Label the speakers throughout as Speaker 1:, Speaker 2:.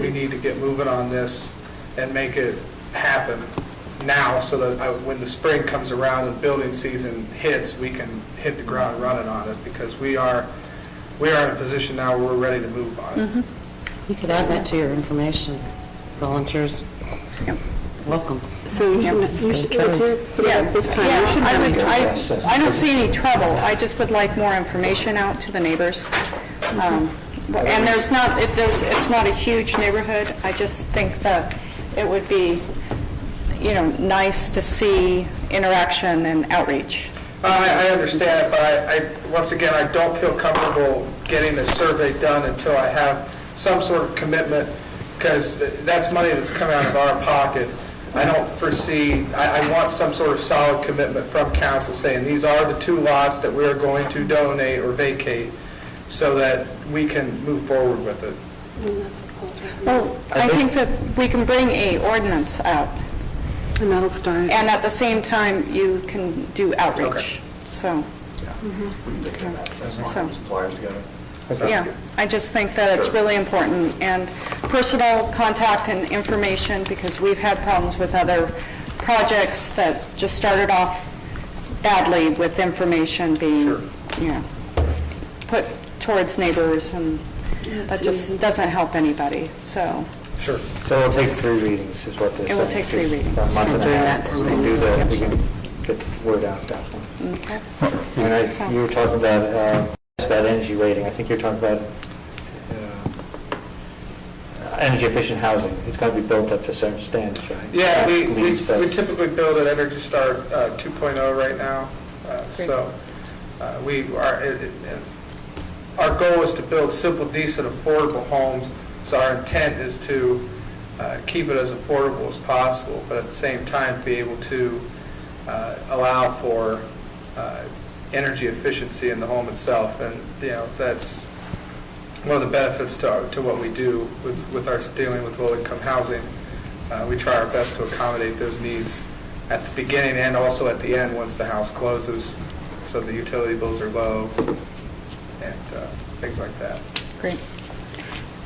Speaker 1: need to get moving on this and make it happen now so that I- when the spring comes around and building season hits, we can hit the ground running on it because we are, we are in a position now where we're ready to move on it.
Speaker 2: You could add that to your information. Volunteers, welcome.
Speaker 3: So you
Speaker 2: Yep.
Speaker 3: should, you should-
Speaker 2: Trades.
Speaker 3: if you're, yeah, this time, you should
Speaker 4: I
Speaker 3: have
Speaker 4: would,
Speaker 3: it.
Speaker 4: I, I don't see any trouble, I just would like more information out to the neighbors. Um, And there's not, it, there's, it's not a huge neighborhood, I just think that it would be, you know, nice to see interaction and outreach.
Speaker 1: I, I understand it, but I, I, once again, I don't feel comfortable getting a survey done until I have some sort of commitment, because that's money that's coming out of our pocket. I don't foresee, I, I want some sort of solid commitment from council saying, these are the two lots that we're going to donate or vacate, so that we can move forward with it.
Speaker 4: Well, I think that we can bring a ordinance out,
Speaker 3: And that'll start.
Speaker 4: and at the same time, you can do outreach, so. So- Yeah, I just think that it's really important, and personal contact and information, because we've had problems with other projects that just started off badly with information being, you know, put towards neighbors, and that just doesn't help anybody, so,
Speaker 1: Sure.
Speaker 5: So it'll take three readings is what they're saying.
Speaker 4: It will take three
Speaker 5: Just
Speaker 4: readings.
Speaker 5: about A month and a half,
Speaker 2: Yeah.
Speaker 5: we can do that, we can get the word out that one.
Speaker 4: okay.
Speaker 5: And I, you were talking about, uh, it's about energy rating, I think you're talking about uh, energy efficient housing, it's got to be built up to certain standards, right?
Speaker 1: Yeah, we, we
Speaker 5: Leeds, but-
Speaker 1: we typically build at Energy Star uh, 2.0 right now, uh, so uh, we are, it- it- it- our goal is to build simple, decent, affordable homes, so our intent is to uh, keep it as affordable as possible, but at the same time, be able to uh, allow for uh, energy efficiency in the home itself, and, you know, that's one of the benefits to, to what we do with, with our dealing with low-income housing. Uh, we try our best to accommodate those needs at the beginning and also at the end, once the house closes, so the utility bills are low and uh, things like that.
Speaker 4: Great.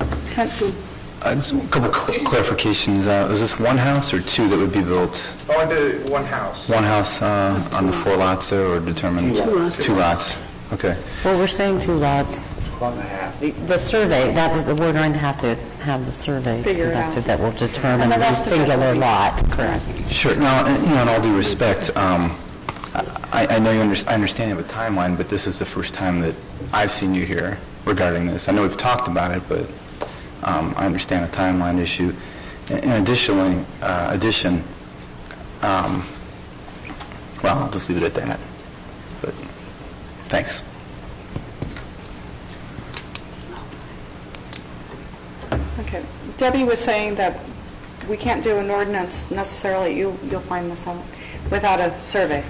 Speaker 6: Uh, Just a couple cl- clarifications. Uh, Is this one house or two that would be built?
Speaker 1: I want to do Oh, one house.
Speaker 6: One house uh, on the four lots there, or determined?
Speaker 5: Two
Speaker 3: lots.
Speaker 6: Two lots, okay.
Speaker 2: Well, we're saying two lots.
Speaker 5: Plot and a half.
Speaker 2: The- The survey, that is, we're going to have to have the survey
Speaker 4: Figure it out.
Speaker 2: conducted that will determine
Speaker 4: And the
Speaker 2: the
Speaker 4: rest of it will
Speaker 2: singular
Speaker 4: be-
Speaker 2: lot. Correct.
Speaker 6: Sure, now, and, you know, in all due respect, um, I I know you, under- I understand you have a timeline, but this is the first time that I've seen you here regarding this. I know we've talked about it, but um, I understand a timeline issue. In additionally, uh, addition, um, well, I'll just leave it at that, but thanks.
Speaker 4: Okay. Debbie was saying that we can't do an ordinance necessarily, you, you'll find this out, without a survey.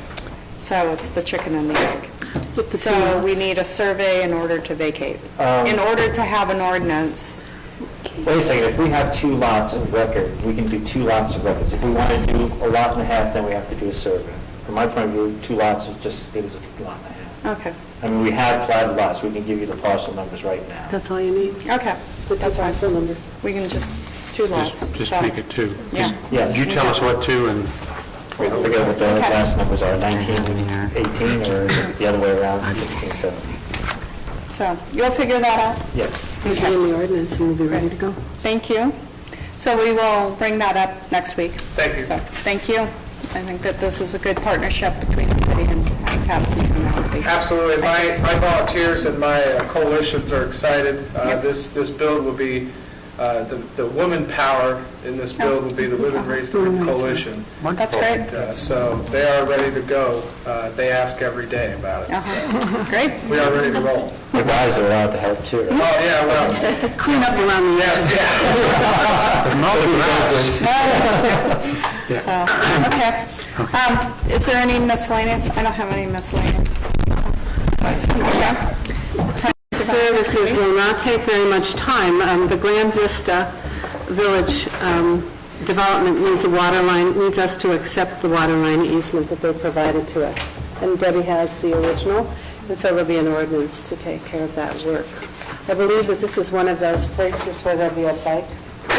Speaker 4: So it's the chicken and the egg.
Speaker 3: the
Speaker 4: So we need a survey in order to vacate.
Speaker 5: Um,
Speaker 4: In order to have an ordinance,
Speaker 5: Wait a second, if we have two lots of record, we can do two lots of records. If we want to do a lot and a half, then we have to do a survey. From my point of view, two lots is just as good as a lot and a half.
Speaker 4: okay,
Speaker 5: I mean, we have platted lots, we can give you the parcel numbers right now.
Speaker 3: That's all you need.
Speaker 4: okay. That's fine.
Speaker 3: The number.
Speaker 4: We can just, two lots.
Speaker 7: Just
Speaker 4: so-
Speaker 7: make it two.
Speaker 4: Yeah.
Speaker 5: Yes.
Speaker 7: You tell us what two and
Speaker 5: We forget what the
Speaker 4: Okay.
Speaker 5: last numbers are, 19, 18, or is it the other way around, 16, 17?
Speaker 4: So you'll figure that out.
Speaker 5: Yes.
Speaker 3: It'll be in the ordinance and we'll be ready to go.
Speaker 4: Thank you. So we will bring that up next week.
Speaker 1: Thank you.
Speaker 4: So, Thank you. I think that this is a good partnership between the city and Habitat and Community.
Speaker 1: Absolutely. My, my volunteers and my uh, coalitions are excited. Uh,
Speaker 4: Yep.
Speaker 1: This, this build will be, uh, the, the woman power in this build will be the Women Raise the Roof Coalition.
Speaker 4: That's great.
Speaker 1: And, uh, So they are ready to go. Uh, They ask every day about it. so
Speaker 4: Uh-huh. Great.
Speaker 1: We are ready to roll.
Speaker 5: The guys are allowed to help too, right?
Speaker 1: Oh, yeah, well,
Speaker 3: Clean up around the
Speaker 1: yes, yeah.
Speaker 4: So, okay. Um, Is there any miscellaneous? I don't have any miscellaneous. Okay.
Speaker 3: services will not take very much time. Um, The Grand Vista Village um, Development needs a water line, needs us to accept the water line easement that they provided to us. And Debbie has the original, and so there'll be an ordinance to take care of that work. I believe that this is one of those places where there'll be a bike